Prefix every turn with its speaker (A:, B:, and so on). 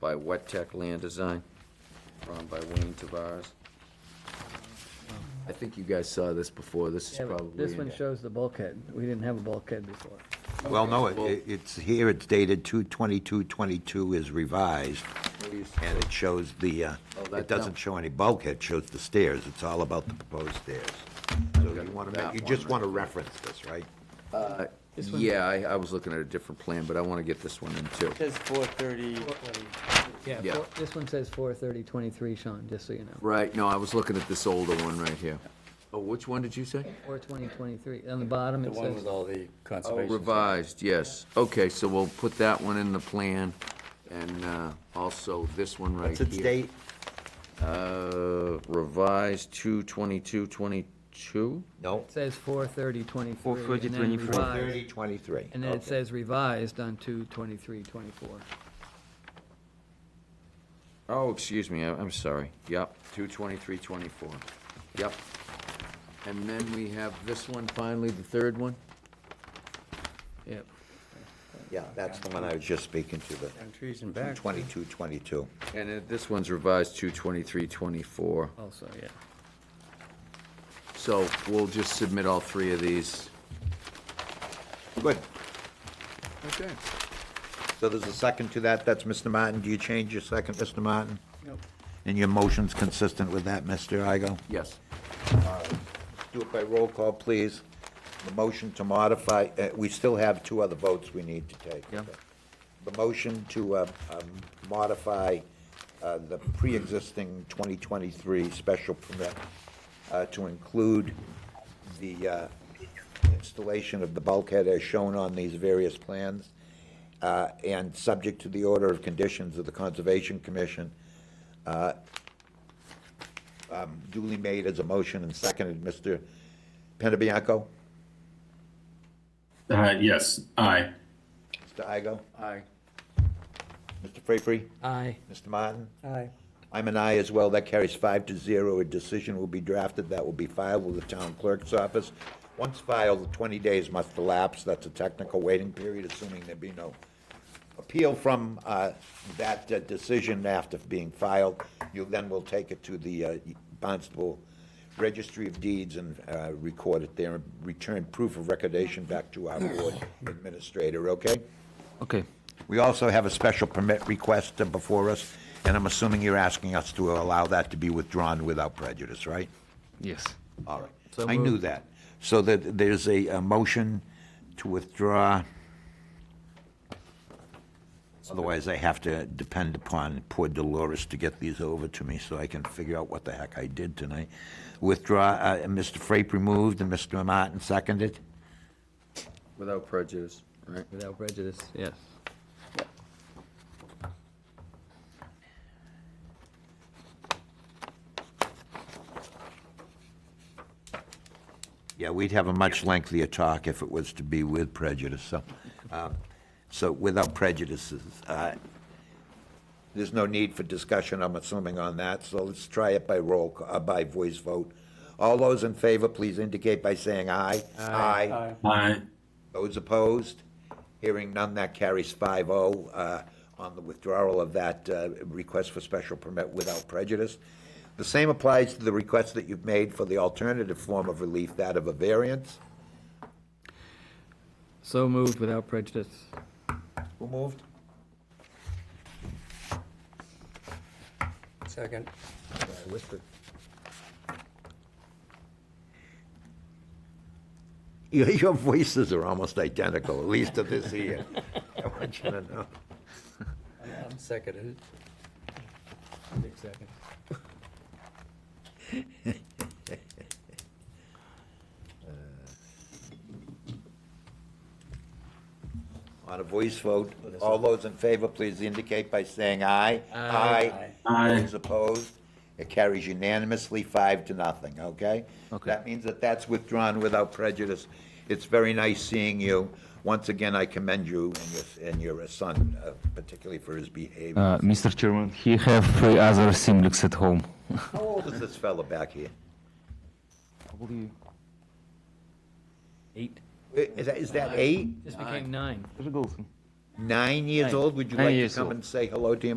A: by Wet Tech Land Design, drawn by Wayne Tavares. I think you guys saw this before, this is
B: Yeah, but
A: probably.
B: This one shows the bulkhead. We didn't have a bulkhead before.
C: Well, no, it-
A: Well-
C: it- it's, here it's dated 2/22/22 is revised, and it shows the, uh,
A: Oh, that-
C: it doesn't show any bulkhead, it shows the stairs. It's all about the proposed stairs. So you want to,
A: that
C: you
A: one
C: just
A: right
C: want to
A: there.
C: reference this, right?
B: This one?
A: Yeah, I, I was looking at a different plan, but I wanna get this one in too.
D: Says four thirty,
A: Yeah.
B: Yeah, four- this one says four thirty twenty-three, Sean, just so you know.
A: Right, no, I was looking at this older one right here. Oh, which one did you say?
B: Four twenty twenty-three. On the bottom,
D: the
B: it
D: one
B: says,
D: with all the
A: Oh,
D: conservation.
A: revised, yes. Okay, so we'll put that one in the plan, and, uh, also this one right
C: It's
A: here.
C: its date,
A: Uh, revised two twenty-two twenty-two?
C: no,
B: it says four thirty twenty-three.
D: 4:30,
B: and then
D: 24.
B: revised,
C: 30/23.
B: And then it says revised on two twenty-three, twenty-four.
A: Oh, excuse me, I- I'm sorry. Yep, two twenty-three twenty-four. Yep. And then we have this one, finally, the third one?
B: Yep.
C: Yeah, that's the one I was just speaking to, the
D: And trees and back.
C: 22/22.
A: And uh, this one's revised two twenty-three twenty-four.
B: Also, yeah.
A: So we'll just submit all three of these.
C: Good.
A: Okay.
C: So there's a second to that. That's Mr. Martin. Do you change your second, Mr. Martin?
B: Nope.
C: And your motion's consistent with that, Mr. Igo?
A: Yes.
C: Do it by roll call, please. The motion to modify, uh, we still have two other votes we need to take.
A: Yeah.
C: The motion to uh, um, modify uh, the pre-existing 2023 special permit uh, to include the uh, installation of the bulkhead as shown on these various plans, uh, and subject to the order of conditions of the Conservation Commission, duly made as a motion and seconded, Mr. Panabianco?
E: Uh, yes, aye.
C: Mr. Igo?
A: Aye.
C: Mr. Frapery?
B: Aye.
C: Mr. Martin?
B: Aye.
C: I'm an aye as well. That carries five to zero. A decision will be drafted that will be filed with the town clerk's office. Once filed, twenty days must elapse. That's a technical waiting period, assuming there be no appeal from uh, that uh, decision after being filed. You then will take it to the uh, Barnstable Registry of Deeds and uh, record it there, and return proof of recordation back to our board administrator, okay?
A: Okay.
C: We also have a special permit request uh, before us, and I'm assuming you're asking us to allow that to be withdrawn without prejudice, right?
A: Yes.
C: All right. I knew that. So that there's a, a motion to withdraw. Otherwise, I have to depend upon poor Dolores to get these over to me so I can figure out what the heck I did tonight. Withdraw, uh, Mr. Frape removed and Mr. Martin seconded.
A: Without prejudice, right?
B: Without prejudice, yes.
C: Yeah, we'd have a much lengthier talk if it was to be with prejudice, so, uh, so without prejudices. uh, There's no need for discussion, I'm assuming, on that, so let's try it by roll, c- uh, by voice vote. All those in favor, please indicate by saying aye. Aye.
E: Aye.
C: Those opposed? Hearing none, that carries 5-0 uh, on the withdrawal of that uh, request for special permit without prejudice. The same applies to the request that you've made for the alternative form of relief, that of a variance.
B: So moved without prejudice.
C: Who moved?
D: Second.
C: I whispered. Your, your voices are almost identical, at least to this ear. I want you to know.
D: I'm seconded.
B: Six seconds.
C: On a voice vote, all those in favor, please indicate by saying aye. Aye.
E: Aye.
C: Those opposed, it carries unanimously, five to nothing, okay?
A: Okay.
C: That means that that's withdrawn without prejudice. It's very nice seeing you. Once again, I commend you and your, and your son, uh, particularly for his behavior.
F: Uh, Mr. Chairman, he have three other Simliks at home.
C: How old is this fella back here?
F: Probably eight.
C: Is that, is that eight,
B: This became nine.
C: nine years old? Would you
F: Nine
C: like to
F: years
C: come
F: old.
C: and say hello to him?